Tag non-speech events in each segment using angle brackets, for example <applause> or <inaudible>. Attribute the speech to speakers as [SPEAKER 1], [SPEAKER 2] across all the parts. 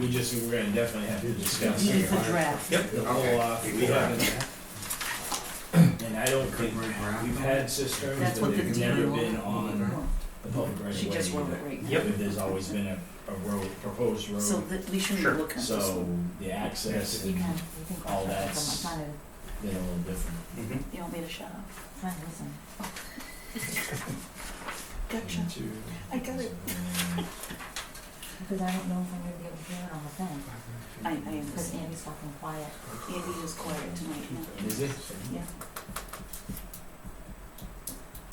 [SPEAKER 1] we just, we're gonna definitely have to discuss.
[SPEAKER 2] It's a draft.
[SPEAKER 1] Yep, the whole off, we haven't. And I don't think, we've had cisterns,
[SPEAKER 2] That's
[SPEAKER 1] but
[SPEAKER 2] what
[SPEAKER 1] they've
[SPEAKER 2] the
[SPEAKER 1] never
[SPEAKER 2] DEP
[SPEAKER 1] been on the public right of way.
[SPEAKER 2] She just wrote it
[SPEAKER 1] either.
[SPEAKER 2] right now.
[SPEAKER 1] Yep, there's always been a, a road, proposed
[SPEAKER 2] So
[SPEAKER 1] road,
[SPEAKER 2] that we shouldn't
[SPEAKER 3] Sure.
[SPEAKER 2] look at this
[SPEAKER 1] so
[SPEAKER 2] one.
[SPEAKER 1] the access
[SPEAKER 4] You
[SPEAKER 1] and
[SPEAKER 4] can, you can
[SPEAKER 1] all
[SPEAKER 4] cross reference
[SPEAKER 1] that's-
[SPEAKER 4] them,
[SPEAKER 1] they're a little different.
[SPEAKER 3] Mhm.
[SPEAKER 2] You want me to shut up?
[SPEAKER 4] it's not a, it's not a listen.
[SPEAKER 2] <laughs> Gotcha. I got it.
[SPEAKER 4] Because I don't know if I'm gonna be able to hear it on the phone,
[SPEAKER 2] I, I
[SPEAKER 4] because
[SPEAKER 2] understand.
[SPEAKER 4] Andy's fucking quiet.
[SPEAKER 2] Andy was quiet tonight, no?
[SPEAKER 1] Is it?
[SPEAKER 2] Yeah.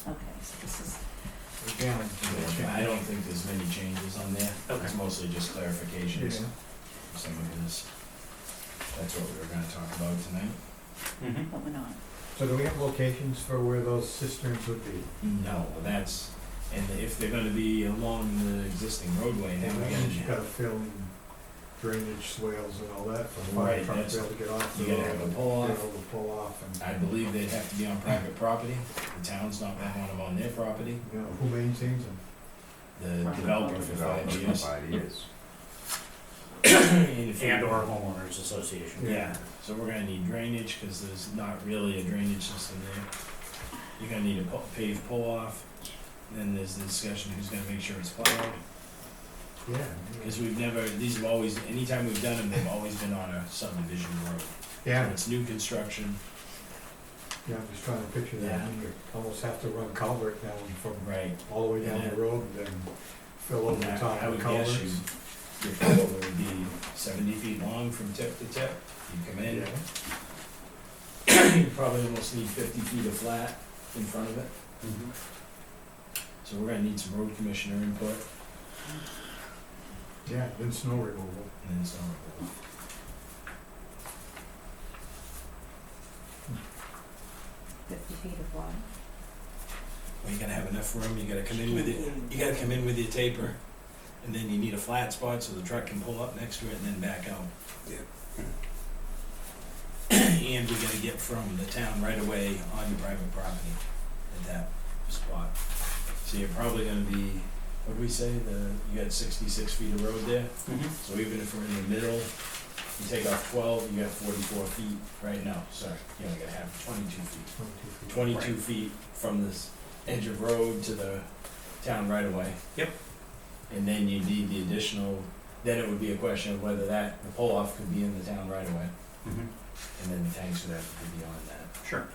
[SPEAKER 2] Okay, so this is,
[SPEAKER 1] I don't think there's many changes on there. It's
[SPEAKER 3] Okay.
[SPEAKER 1] mostly just clarifications, some of this. That's what we were gonna talk about tonight.
[SPEAKER 3] Mhm.
[SPEAKER 2] but we're not.
[SPEAKER 5] So do we have locations for where those cisterns would be?
[SPEAKER 1] No, that's, and if they're gonna be along the existing roadway,
[SPEAKER 5] And
[SPEAKER 1] then we
[SPEAKER 5] then you've got
[SPEAKER 1] gotta,
[SPEAKER 5] to fill in drainage swales and all that for the
[SPEAKER 1] Right,
[SPEAKER 5] fire truck
[SPEAKER 1] that's-
[SPEAKER 5] to be able to get off the
[SPEAKER 1] you
[SPEAKER 5] road.
[SPEAKER 1] gotta have a pull
[SPEAKER 5] Be
[SPEAKER 1] off.
[SPEAKER 5] able to pull off
[SPEAKER 1] I
[SPEAKER 5] and,
[SPEAKER 1] believe they'd have to be on private property, the town's not gonna want them on their property,
[SPEAKER 5] you know, who maintains them?
[SPEAKER 1] the developer for five years. <clears throat>
[SPEAKER 3] years.
[SPEAKER 1] And if we-
[SPEAKER 3] And or homeowners association.
[SPEAKER 1] Yeah, so we're gonna need drainage, cause there's not really a drainage system there. You're gonna need a pu- paved pull-off, then there's the discussion who's gonna make sure it's plowed,
[SPEAKER 5] Yeah.
[SPEAKER 1] cause we've never, these have always, anytime we've done them, they've always been on a subdivision road. So
[SPEAKER 5] Yeah,
[SPEAKER 1] It's new construction,
[SPEAKER 5] yeah, I'm just trying to picture that.
[SPEAKER 1] Yeah.
[SPEAKER 5] You almost have to run culvert down from
[SPEAKER 1] right,
[SPEAKER 5] all the way down
[SPEAKER 1] Yeah.
[SPEAKER 5] the road and then fill over the
[SPEAKER 1] Now,
[SPEAKER 5] top
[SPEAKER 1] I
[SPEAKER 5] of
[SPEAKER 1] would
[SPEAKER 5] the
[SPEAKER 1] guess
[SPEAKER 5] culverts.
[SPEAKER 1] you, your culvert would be seventy feet long from tip to tip, you come in,
[SPEAKER 5] Yeah.
[SPEAKER 1] you probably almost need fifty feet of flat in front of it.
[SPEAKER 3] Mhm.
[SPEAKER 1] So we're gonna need some road commissioner input,
[SPEAKER 5] Yeah, then snow removal.
[SPEAKER 1] and then some.
[SPEAKER 4] Fifty feet of water.
[SPEAKER 1] Well, you gotta have enough room, you gotta come in with it, you gotta come in with your taper, and then you need a flat spot so the truck can pull up next to it and then back out. And we gotta get from the town right away on your private property at that spot. So you're probably gonna be, what'd we say, the, you got sixty-six feet of road there?
[SPEAKER 3] Mhm.
[SPEAKER 1] So even if we're in the middle, you take off twelve, you got forty-four feet right now, sorry, you only gotta have twenty-two feet.
[SPEAKER 5] 22 feet.
[SPEAKER 1] twenty-two feet from this edge of road to the town right away.
[SPEAKER 3] Yep.
[SPEAKER 1] And then you need the additional, then it would be a question of whether that, the pull-off could be in the town right away,
[SPEAKER 3] Mhm.
[SPEAKER 1] and then the tanks would have to be beyond that.
[SPEAKER 3] Sure.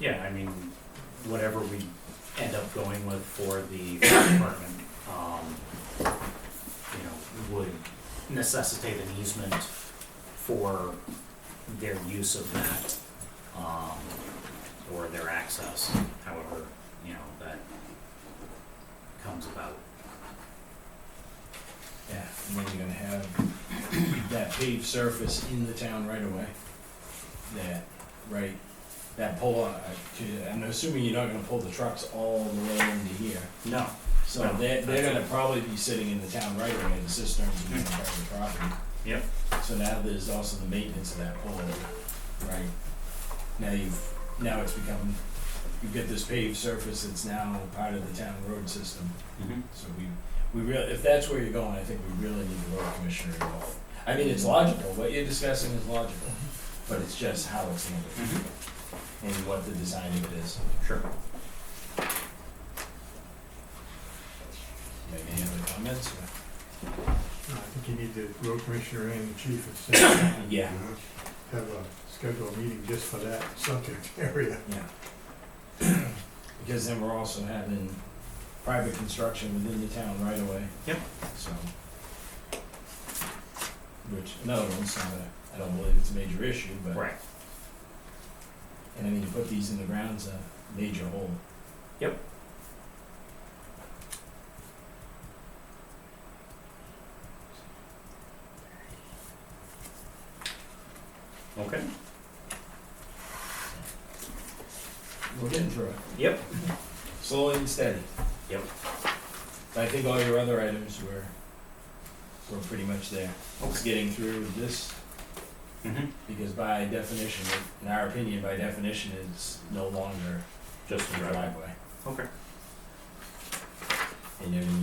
[SPEAKER 3] Yeah, I mean, whatever we end up going with for the fire department, um, you know, would necessitate an easement for their use of that, um, or their access, however, you know, that comes about.
[SPEAKER 1] Yeah, and then you're gonna have <coughs> that paved surface in the town right away. That, right, that pull-off, uh, I'm assuming you're not gonna pull the trucks all the way into here.
[SPEAKER 3] No,
[SPEAKER 1] So
[SPEAKER 3] No,
[SPEAKER 1] they're, they're
[SPEAKER 3] that's- Hmm.
[SPEAKER 1] gonna probably be sitting in the town right away, the cisterns would be on private property.
[SPEAKER 3] Yep.
[SPEAKER 1] So now there's also the maintenance of that pole, right? Now you've, now it's become, you've got this paved surface that's now part of the town road system.
[SPEAKER 3] Mhm.
[SPEAKER 1] So we, we real, if that's where you're going, I think we really need the road commissioner involved. I mean, it's logical, what you're discussing is logical, but it's just how it's handled
[SPEAKER 3] Mhm.
[SPEAKER 1] and what the design of it is.
[SPEAKER 3] sure.
[SPEAKER 1] Maybe any other comments? or-
[SPEAKER 5] No, I think you need the road commissioner and the chief at the same time.
[SPEAKER 1] Yeah,
[SPEAKER 5] have a scheduled meeting just for that subject <laughs> area.
[SPEAKER 1] Yeah. <clears throat> Because then we're also having private construction within the town right away.
[SPEAKER 3] Yep.
[SPEAKER 1] So. Which, another one's not a, I don't believe it's a major issue, but.
[SPEAKER 3] Right.
[SPEAKER 1] And I mean, to put these in the ground's a major hole.
[SPEAKER 3] Yep. Okay.
[SPEAKER 1] We're getting through it,
[SPEAKER 3] Yep.
[SPEAKER 1] slowly and steady.
[SPEAKER 3] Yep.
[SPEAKER 1] But I think all your other items were, were pretty much there. It's getting through this,
[SPEAKER 3] Mm-hmm.
[SPEAKER 1] because by definition, in our opinion, by definition, it's no longer
[SPEAKER 3] Just
[SPEAKER 1] a driveway.
[SPEAKER 3] Okay.
[SPEAKER 1] And then